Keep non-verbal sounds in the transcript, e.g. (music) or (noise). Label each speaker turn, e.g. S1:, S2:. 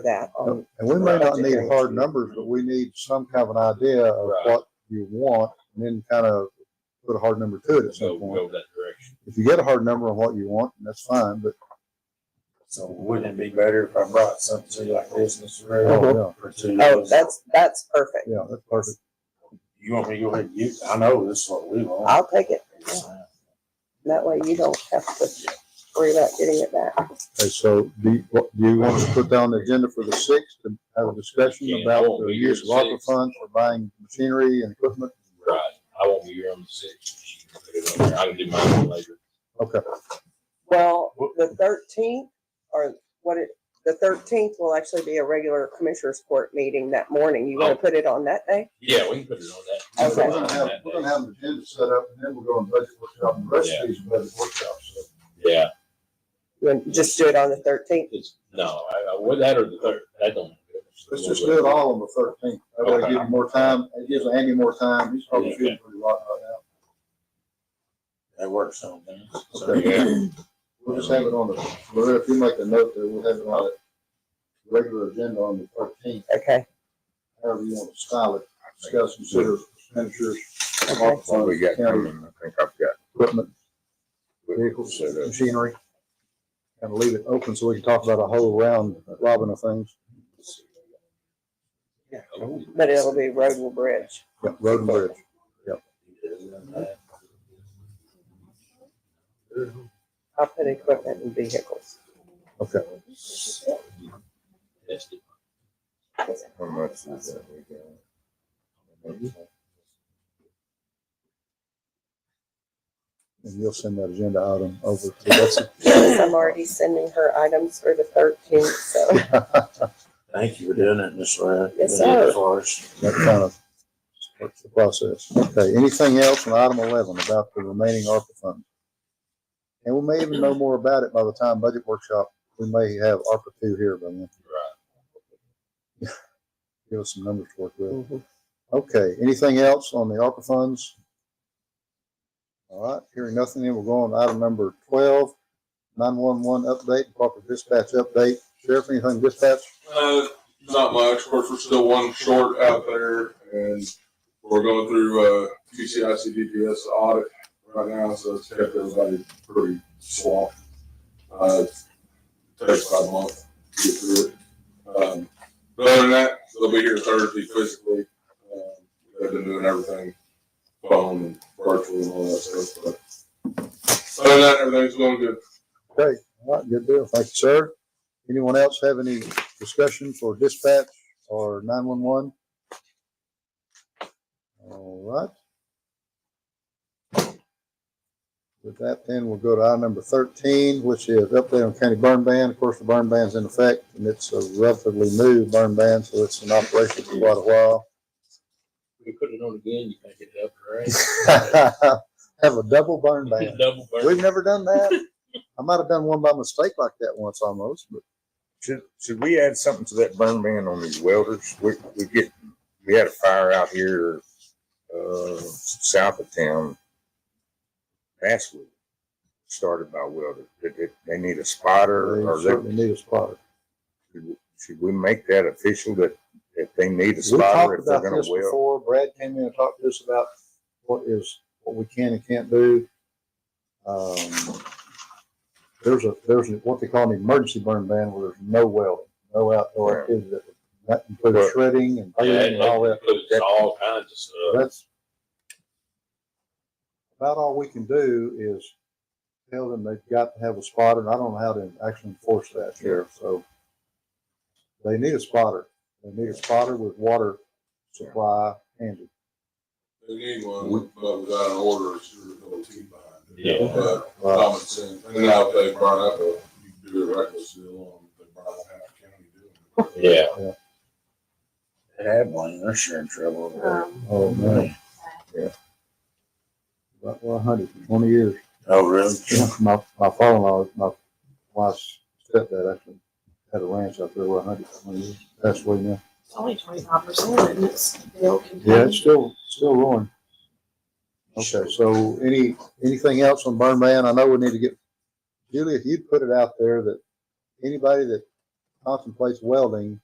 S1: that Oh, on,
S2: And we may not need
S1: Budgetary.
S2: hard numbers, but we need some kind of an idea of
S3: Right.
S2: what you want and then kind of put a hard number to it at
S3: So
S2: some
S3: we'll go
S2: point.
S3: that direction.
S2: If you get a hard number on what you want, then that's fine, but
S4: So wouldn't it be better if I brought something to you like this, Mr. Raybold?
S2: oh,
S4: Or to
S1: oh,
S4: you?
S1: that's, that's perfect.
S2: yeah, yeah, that's perfect.
S4: You want me to go ahead and use, I know this is what we want.
S1: I'll take it. That way you don't have to worry about getting it back.
S2: Okay, so do you, what- do you want us to put down the agenda for the sixth to have a discussion
S3: Can't
S2: about
S3: hold
S2: the
S3: me
S2: use of
S3: here
S2: ARPA
S3: six.
S2: funds for buying machinery and equipment?
S3: Right. I won't be here on the sixth. She can put it on there. I can do mine later.
S2: Okay,
S1: Well, the thirteenth, or what it, the thirteenth will actually be a regular commissioners court meeting that morning. You wanna
S3: Oh.
S1: put it on that day?
S3: Yeah, we can put it on
S2: So
S3: that.
S2: we're gonna have, we're gonna have an agenda set up and then we'll go on budget workshop and the rest of these are budget workshops. so.
S3: Yeah,
S1: You wanna Just do it on the thirteenth?
S3: it's, no, I, I, would that or the third, that don't.
S2: Let's just do it all on the thirteenth. That way give you more time. It gives Andy more time. He's probably feeling pretty rotten right now.
S4: That works on me. So,
S2: Okay.
S3: Yeah.
S2: (laughs) We'll just have it on the, Loretta, if you make a note that we'll have it on the regular agenda on the thirteenth,
S1: Okay,
S2: however you want to style it. Discuss, consider expenditures,
S1: okay.
S5: What we got
S2: Yeah.
S5: coming, I think I've got.
S2: equipment, vehicles,
S5: vehicles set up.
S2: machinery. And leave it open so we can talk about a whole round, Robin, of things.
S1: But it'll be road and bridge.
S2: Yeah, Road and bridge.
S1: I'll put equipment and vehicles.
S2: Okay.
S3: That's it.
S5: How much is that we got?
S2: And you'll send that agenda item over to Betsy.
S1: I'm already sending her items for the thirteenth, so.
S4: Thank you for doing it, Mr. Ray.
S1: Yes,
S4: You did it
S1: sir.
S4: For us.
S2: That kind of starts the process. Okay, anything else on item eleven about the remaining ARPA funds? And we may even know more about it by the time budget workshop, we may have ARPA two here by then,
S3: Right.
S2: give us some numbers to work with.
S1: Mhm.
S2: Okay, anything else on the ARPA funds? All right, hearing nothing, then we'll go on to item number twelve, nine-one-one update, proper dispatch update. Sheriff, anything dispatch?
S6: Uh, not much. Of course, we're still one short out there and we're going through, uh, QCIC DPS audit right now, so it's kept everybody pretty swamped. Uh, takes about a month to get through it. Um, but other than that, they'll be here Thursday physically. Um, They've been doing everything, phone and virtual and all that stuff, but other than that, everything's going good.
S2: Okay, all right, good deal. Thank you, sir. Anyone else have any discussion for dispatch or nine-one-one? All right. With that, then we'll go to item number thirteen, which is update on county burn ban. Of course, the burn ban's in effect, and it's a relatively new burn ban, so it's in operation for quite a while. (laughs)
S3: We put it on again, you can't get it up,
S2: Have a double burn
S3: right?
S2: ban.
S3: Double burn.
S2: We've never done that. I might have done one by mistake like that once almost, but
S5: Should, should we add something to that burn ban on these welders? We, we get, we had a fire out here, uh, south of town last week, started by welder. Did they, they need a spotter or
S2: They
S5: they,
S2: certainly need a spotter.
S5: should we make that official that, that they need a
S2: We
S5: spotter
S2: talked
S5: if they're
S2: about
S5: gonna
S2: this
S5: weld?
S2: before. Brad came in and talked to us about what is, what we can and can't do. Um, There's a, there's a- what they call an emergency burn ban where there's no welding, no outdoor
S5: Right.
S2: activity that would, that includes shredding and
S3: Oh, Yeah,
S2: painting
S3: it
S2: and all that.
S3: includes all kinds of stuff.
S2: That's about all we can do is tell them they've got to have a spotter, and I don't know how to actually enforce that here, so. They need a spotter. They need a spotter with water supply handy.
S6: They need one, but without an order, it's your ability behind it.
S3: Yeah.
S6: But
S2: Uh,
S6: common sense, and now if they burn up, a- you can do a reckless deal on, they burn up half um, the county doing it.
S3: Yeah.
S4: They had one, they're sure in trouble. over there.
S2: Oh, man. Yeah. About one hundred and twenty years.
S4: Oh, really?
S2: My, my father-in-law, my wife's stepdad actually had a ranch out there where hundred and twenty years, passed away now.
S7: It's only twenty-five percent and it's still
S2: Yeah, it's
S7: contained.
S2: still, still rolling. Okay, so any, anything else on burn ban? I know we need to get, Julie, if you'd put it out there that anybody that contemplates welding